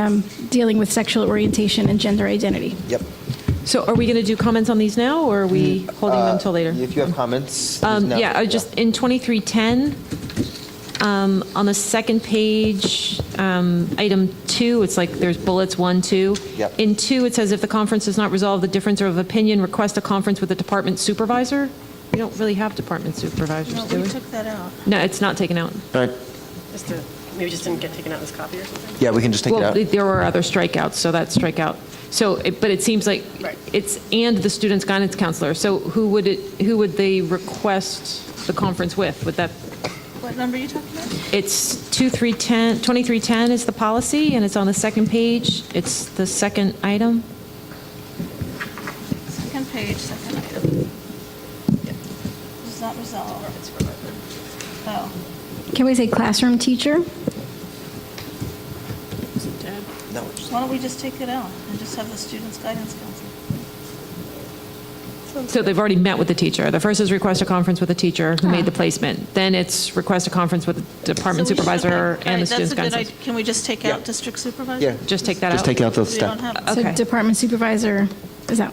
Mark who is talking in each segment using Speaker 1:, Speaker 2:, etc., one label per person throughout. Speaker 1: um, dealing with sexual orientation and gender identity.
Speaker 2: Yep.
Speaker 3: So are we going to do comments on these now, or are we holding them till later?
Speaker 2: Mm, uh, If you have comments.
Speaker 3: Um,
Speaker 2: now-
Speaker 3: Yeah, I just, in 2310, um, on the second page, um, item two, it's like there's bullets, one, two.
Speaker 2: Yep.
Speaker 3: In two, it says if the conference does not resolve the difference of opinion, request a conference with the department supervisor. We don't really have department supervisors,
Speaker 4: No,
Speaker 3: do
Speaker 4: we
Speaker 3: we?
Speaker 4: took that out.
Speaker 3: No, it's not taken out.
Speaker 2: Right.
Speaker 4: Just to, maybe just didn't get taken out in this copy or something?
Speaker 2: Yeah, we can just take it
Speaker 3: Well,
Speaker 2: out.
Speaker 3: there were other strikeouts, so that strikeout. So, it- but it seems like
Speaker 4: Right.
Speaker 3: it's, and the student's guidance counselor. So who would it, who would they request the conference with? Would that,
Speaker 4: What number are you talking about?
Speaker 3: it's 2310, 2310 is the policy, and it's on the second page. It's the second item.
Speaker 4: Second page, second item. Does not resolve. Oh.
Speaker 1: Can we say classroom teacher?
Speaker 2: No, it's just-
Speaker 4: Why don't we just take it out and just have the students' guidance counselor?
Speaker 3: So they've already met with the teacher. The first is request a conference with the teacher who made the placement. Then it's request a conference with the department
Speaker 4: So we should-
Speaker 3: supervisor
Speaker 4: okay,
Speaker 3: and the
Speaker 4: alright, that's
Speaker 3: student's
Speaker 4: a good
Speaker 3: guidance. counselor.
Speaker 4: idea. Can we just take out district supervisor?
Speaker 2: Yeah.
Speaker 3: Just take that out?
Speaker 2: Just take out the
Speaker 4: We don't
Speaker 2: step.
Speaker 4: have,
Speaker 3: Okay.
Speaker 1: So department supervisor is out.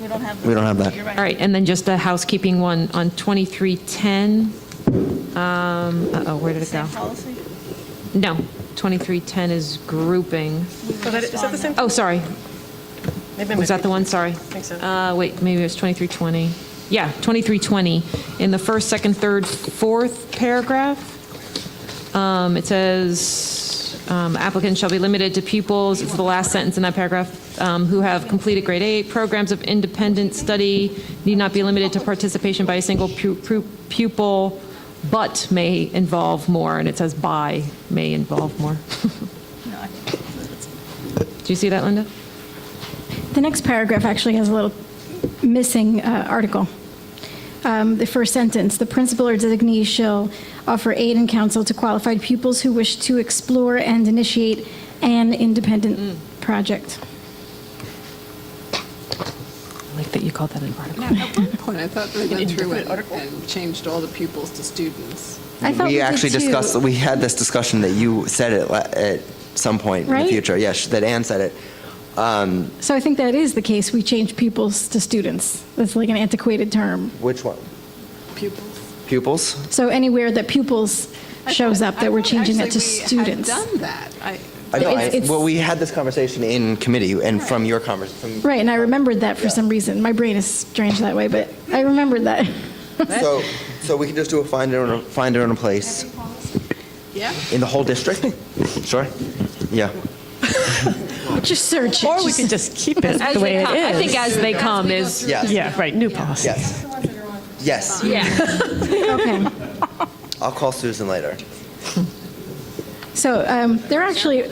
Speaker 4: we don't have.
Speaker 2: We don't have that.
Speaker 4: You're
Speaker 3: All right, and then just a housekeeping one on 2310. Um, Uh-oh, where did it go?
Speaker 4: Same policy?
Speaker 3: No, 2310 is grouping.
Speaker 5: Oh, that- Is that the same?
Speaker 3: Oh, sorry,
Speaker 5: Maybe I'm
Speaker 3: was that the one? Sorry.
Speaker 5: think so.
Speaker 3: Uh, Wait, maybe it was 2320. Yeah, 2320. In the first, second, third, fourth paragraph, um, it says um, applicants shall be limited to pupils, it's the last sentence in that paragraph, um, who have completed grade eight. Programs of independent study need not be limited to participation by a single pu- pu- pupil, but may involve more, and it says by may involve more.
Speaker 4: No, I
Speaker 3: Do you see that, Linda?
Speaker 1: The next paragraph actually has a little missing uh, article. Um, The first sentence, "The principal or designee shall offer aid and counsel to qualified pupils who wish to explore and initiate an
Speaker 2: Mm.
Speaker 1: independent project."
Speaker 3: I like that you called that an article.
Speaker 6: At one point, I thought we went through it and changed all the pupils to students.
Speaker 1: I thought we
Speaker 2: We
Speaker 1: did
Speaker 2: actually
Speaker 1: too.
Speaker 2: discussed, we had this discussion that you said it la- at some point in
Speaker 1: Right?
Speaker 2: the future. Yes, that Ann said it.
Speaker 1: So I think that is the case. We change pupils to students. That's like an antiquated term.
Speaker 2: Which one?
Speaker 6: Pupils.
Speaker 2: Pupils?
Speaker 1: So anywhere that pupils shows up, that we're changing it
Speaker 6: it
Speaker 1: to students.
Speaker 6: Actually, we had done that. I-
Speaker 2: I know,
Speaker 1: It's-
Speaker 2: I-
Speaker 1: it's-
Speaker 2: Well, we had this conversation in committee and from your conversation.
Speaker 1: Right, and I remembered that for some reason. My brain is strange that way, but I remembered that.
Speaker 2: So, so we can just do a find it on a, find it on a place
Speaker 6: Yeah.
Speaker 2: in the whole district? Sure. Yeah.
Speaker 1: Just search it.
Speaker 5: Or we
Speaker 1: Just-
Speaker 5: could just keep it
Speaker 3: As
Speaker 5: the way
Speaker 3: they
Speaker 5: it
Speaker 3: come- I
Speaker 5: is.
Speaker 3: think as they come is,
Speaker 2: Yes.
Speaker 5: Yeah, right, new policy.
Speaker 2: Yes. Yes.
Speaker 3: yeah.
Speaker 1: Okay.
Speaker 2: I'll call Susan later.
Speaker 1: So um, there are actually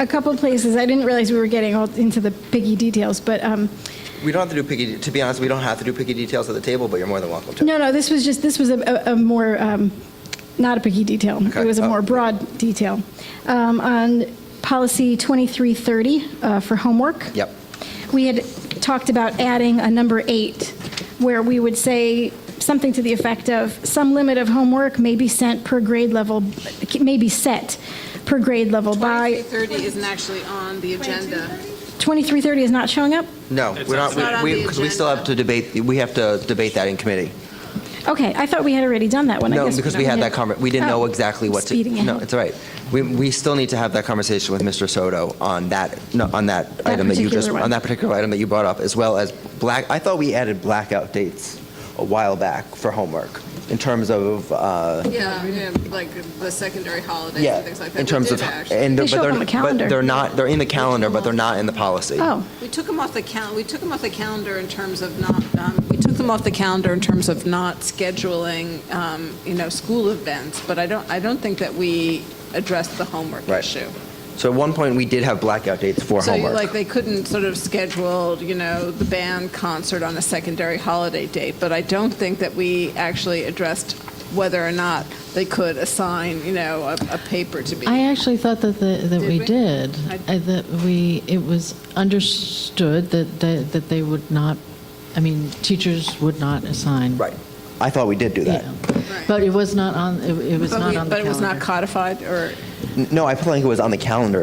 Speaker 1: a couple places, I didn't realize we were getting all into the picky details, but um,
Speaker 2: We don't have to do picky, to be honest, we don't have to do picky details at the table, but you're more than welcome to.
Speaker 1: no, no, this was just, this was a- a a more, um, not a picky detail. It
Speaker 2: Okay.
Speaker 1: was a
Speaker 2: Oh.
Speaker 1: more broad detail. Um, On policy 2330 uh, for homework.
Speaker 2: Yep.
Speaker 1: we had talked about adding a number eight, where we would say something to the effect of, some limit of homework may be sent per grade level, may be set per grade level by,
Speaker 6: 2330 isn't actually on the agenda.
Speaker 1: 2330 is not showing up?
Speaker 2: No, we're not,
Speaker 6: not on
Speaker 2: we,
Speaker 6: the
Speaker 2: because we still
Speaker 6: agenda.
Speaker 2: have to debate, we have to debate that in committee.
Speaker 1: Okay, I thought we had already done that one. I
Speaker 2: No,
Speaker 1: guess
Speaker 2: because we had that conver, we didn't know
Speaker 1: Oh,
Speaker 2: exactly what to.
Speaker 1: Speeding
Speaker 2: No,
Speaker 1: ahead.
Speaker 2: it's all right. We, we still need to have that conversation with Mr. Soto on that, no, on that item that you
Speaker 1: particular
Speaker 2: just,
Speaker 1: one.
Speaker 2: on that particular item that you brought up, as well as black, I thought we added blackout dates a while back for homework, in terms of, uh,
Speaker 6: Yeah, yeah, like the secondary holidays
Speaker 2: yeah,
Speaker 6: and things like that.
Speaker 2: in
Speaker 6: We
Speaker 2: terms
Speaker 6: did
Speaker 2: of.
Speaker 6: actually.
Speaker 2: and
Speaker 1: They
Speaker 2: but
Speaker 1: show up
Speaker 2: they're-
Speaker 1: on the calendar.
Speaker 2: But they're not, they're in the calendar, but they're not in the policy.
Speaker 1: Oh,
Speaker 6: We took them off the cal, we took them off the calendar in terms of not, um, we took them off the calendar in terms of not scheduling, um, you know, school events, but I don't, I don't think that we addressed the homework
Speaker 2: Right.
Speaker 6: issue.
Speaker 2: So at one point, we did have blackout dates for
Speaker 6: So you
Speaker 2: homework.
Speaker 6: like, they couldn't sort of schedule, you know, the band concert on a secondary holiday date, but I don't think that we actually addressed whether or not they could assign, you know, a, a paper to be.
Speaker 7: I actually thought that the, that
Speaker 6: Did
Speaker 7: we
Speaker 6: we?
Speaker 7: did,
Speaker 6: I-
Speaker 7: I- that we, it was understood that, that that they would not, I mean, teachers would not assign.
Speaker 2: Right. I thought we did do that.
Speaker 7: Yeah. But it was not on, it it was
Speaker 6: But
Speaker 7: not on
Speaker 6: we-
Speaker 7: the calendar.
Speaker 6: But it was not codified or?
Speaker 2: N- No, I feel like it was on the calendar